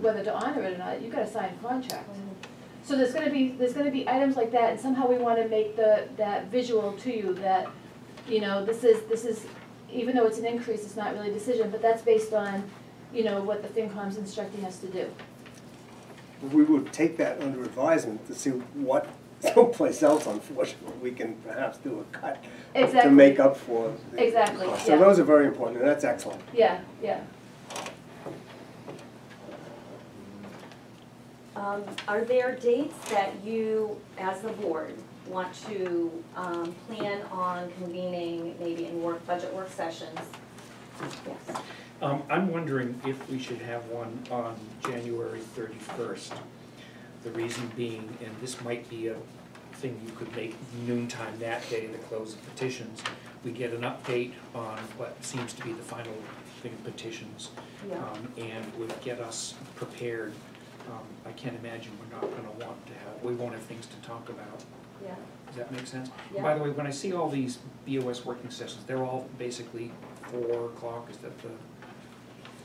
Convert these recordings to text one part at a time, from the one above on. whether to honor it or not, you've got to sign a contract. So there's gonna be, there's gonna be items like that, and somehow we wanna make the, that visual to you, that, you know, this is, this is, even though it's an increase, it's not really a decision, but that's based on, you know, what the FinCom's instructing us to do. We would take that under advisement to see what someplace else, unfortunately, we can perhaps do a cut to Exactly. make up for. the Exactly, cost. yeah. So those are very important, and that's excellent. Yeah, yeah. Um, are there dates that you, as the board, want to, um, plan on convening maybe in work, budget work sessions? Yes. Um, I'm wondering if we should have one on January thirty-first. The reason being, and this might be a thing you could make noontime that day, the close of petitions. We get an update on what seems to be the final thing of petitions. Yeah. um, And would get us prepared. Um, I can't imagine we're not gonna want to have, we won't have things to talk about. Yeah, Does that make sense? Yeah. By the way, when I see all these BOS working sessions, they're all basically four o'clock, is that the,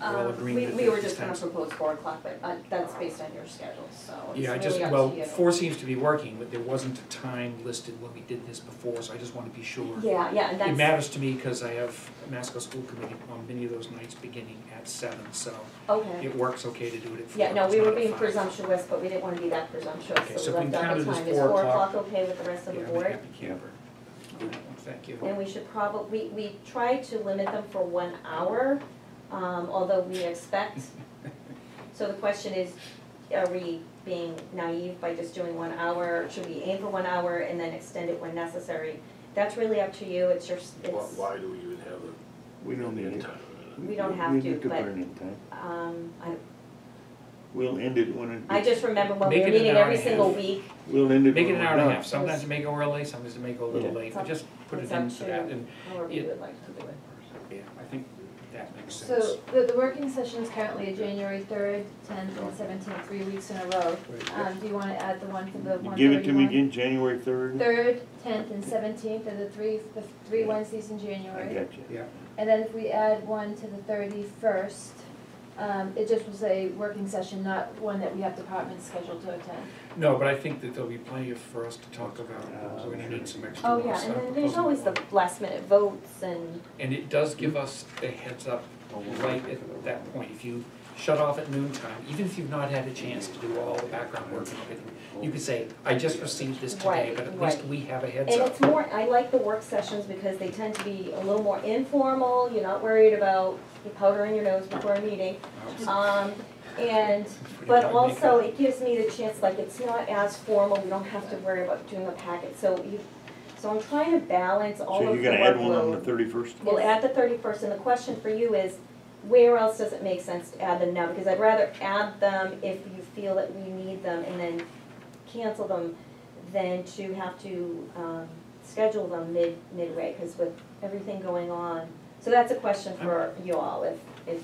we're all um, agreeing we, that we were this just gonna time's- propose four o'clock, but, uh, that's based on your schedule, so it's Yeah, I really just, up to well, you. four seems to be working, but there wasn't a time listed when we did this before, so I just want to be sure. Yeah, yeah, and that's. It matters to me because I have Masco School Committee on many of those nights beginning at seven, so Okay, it works okay to do it at four. yeah, no, it's we not were at being five. presumptuous, but we didn't wanna be that Okay, presumptuous, so so if we we left out the counted it as time, is four four o'clock- o'clock okay with the rest of the Yeah, board? I'm a happy camper. All right, well, Thank you. And we should prob, we, we try to limit them for one hour, um, although we expect. So the question is, are we being naive by just doing one hour? Should we aim for one hour and then extend it when necessary? That's really up to you, it's your, s- Why, it's, why do we even have a, We don't an need end it. time? we don't have We to, need to but- burn in time. um, I, We'll end it when it. I just remember when we Make were it an meeting hour every and a single half. week. We'll end it when Make it an we're hour and a done. half, sometimes you make it early, sometimes you make it a little Yeah. late, but just put it It's up in for to that, and, However it- you would like to do it. yeah, I think that makes sense. So the, the working session is currently January third, tenth, and seventeenth, three weeks in a row. uh, Um, do you wanna add the one for the one Give it to me thirty-one? again, January third? Third, tenth, and seventeenth are the three, the three Wednesdays in I January. got you. Yeah, And then if we add one to the thirty-first, um, it just was a working session, not one that we have departments scheduled to attend. no, but I think that there'll be plenty of- for us to talk about, we're gonna need some extra. Oh, work, yeah, so and I'm then there's proposing always the one. last minute votes and, And it does give us a heads up right at that point. If you shut off at noon time, even if you've not had a chance to do all the background work and everything, you could say, I just received this today, Right, but at least right. we have a heads And up. it's more, I like the work sessions because they tend to be a little more informal, you're not worried about powdering your nose before a meeting. Um, and, but also it gives me the chance, like, it's not as formal, we don't have to worry about doing a packet, so you, so I'm trying to balance all So of you're the gonna add one on the workload. thirty-first? We'll add the thirty-first, and the question for you is, where else does it make sense to add them now? Because I'd rather add them if you feel that we need them and then cancel them than to have to, um, schedule them mid, midway, because with everything going on. So that's a question for you all, if, if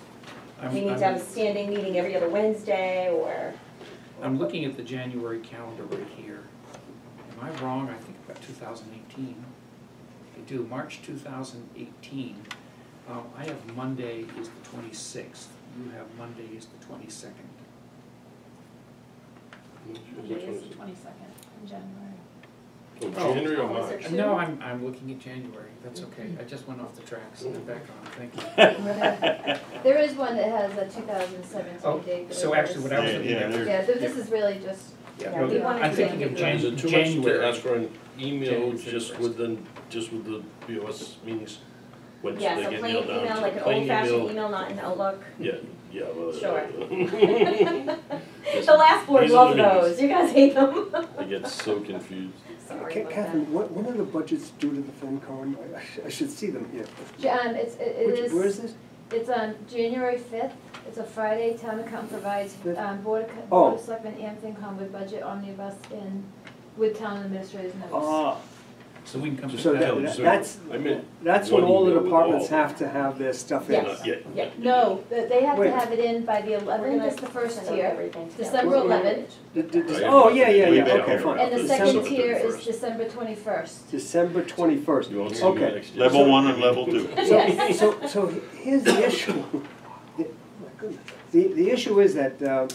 I'm- we need to I'm- have a standing meeting every other Wednesday or, I'm looking at the January calendar right here. Am I wrong? I think about two thousand eighteen. I do, March two thousand eighteen. Um, I have Monday is the twenty-sixth, you have Monday is the twenty-second. It is the twenty-second in January. Oh, Oh. January or Was March? it- No, I'm, I'm looking at January, that's okay, I just went off the tracks Mm-hmm. and I'm back on, thank you. There is one that has a two thousand seventeen Oh, date. but so it actually what I was Yeah, looking yeah, at. there- Yeah, th- this is really just, Yeah, Yeah, no, we wanted I'm to thinking make of it right. Jan- Is it too much to January. ask for an email January just 31st. with the, just with the BOS meetings? When yeah, they so get plain nailed down email, to like an plain old fashioned email. email, not an Outlook. Yeah, yeah, well. Sure. Yes. The last board These are loved the meetings. those, you guys hate them. I get so confused. Sorry Ca- about that. Catherine, what- when are the budgets due to the FinCon? I- I sh- I should see them here. Ja- um, it's, it it Which- is. Where is this? It's on January fifth, it's a Friday, town account provides, um, board, of Co- board Oh. of selectmen and FinCom with budget omnibus in, with town administrator's notes. Ah, So we can come to So that. that- that's- I meant, that's when One all the email with departments all. have to have their stuff in. Yes. not yet. Yeah. No, th- they have to Wait. have it in by the eleventh, is the first tier, December Wait, wait, wait. eleventh, The- the- the- Right. Oh, yeah, yeah, Way yeah, back okay, here. fine. and the December- second tier is 21st. December twenty-first. December twenty-first, You won't see me okay. next year. Level one and level two. So, so, so here's the issue. The- my goodness. The, the issue is that, uh,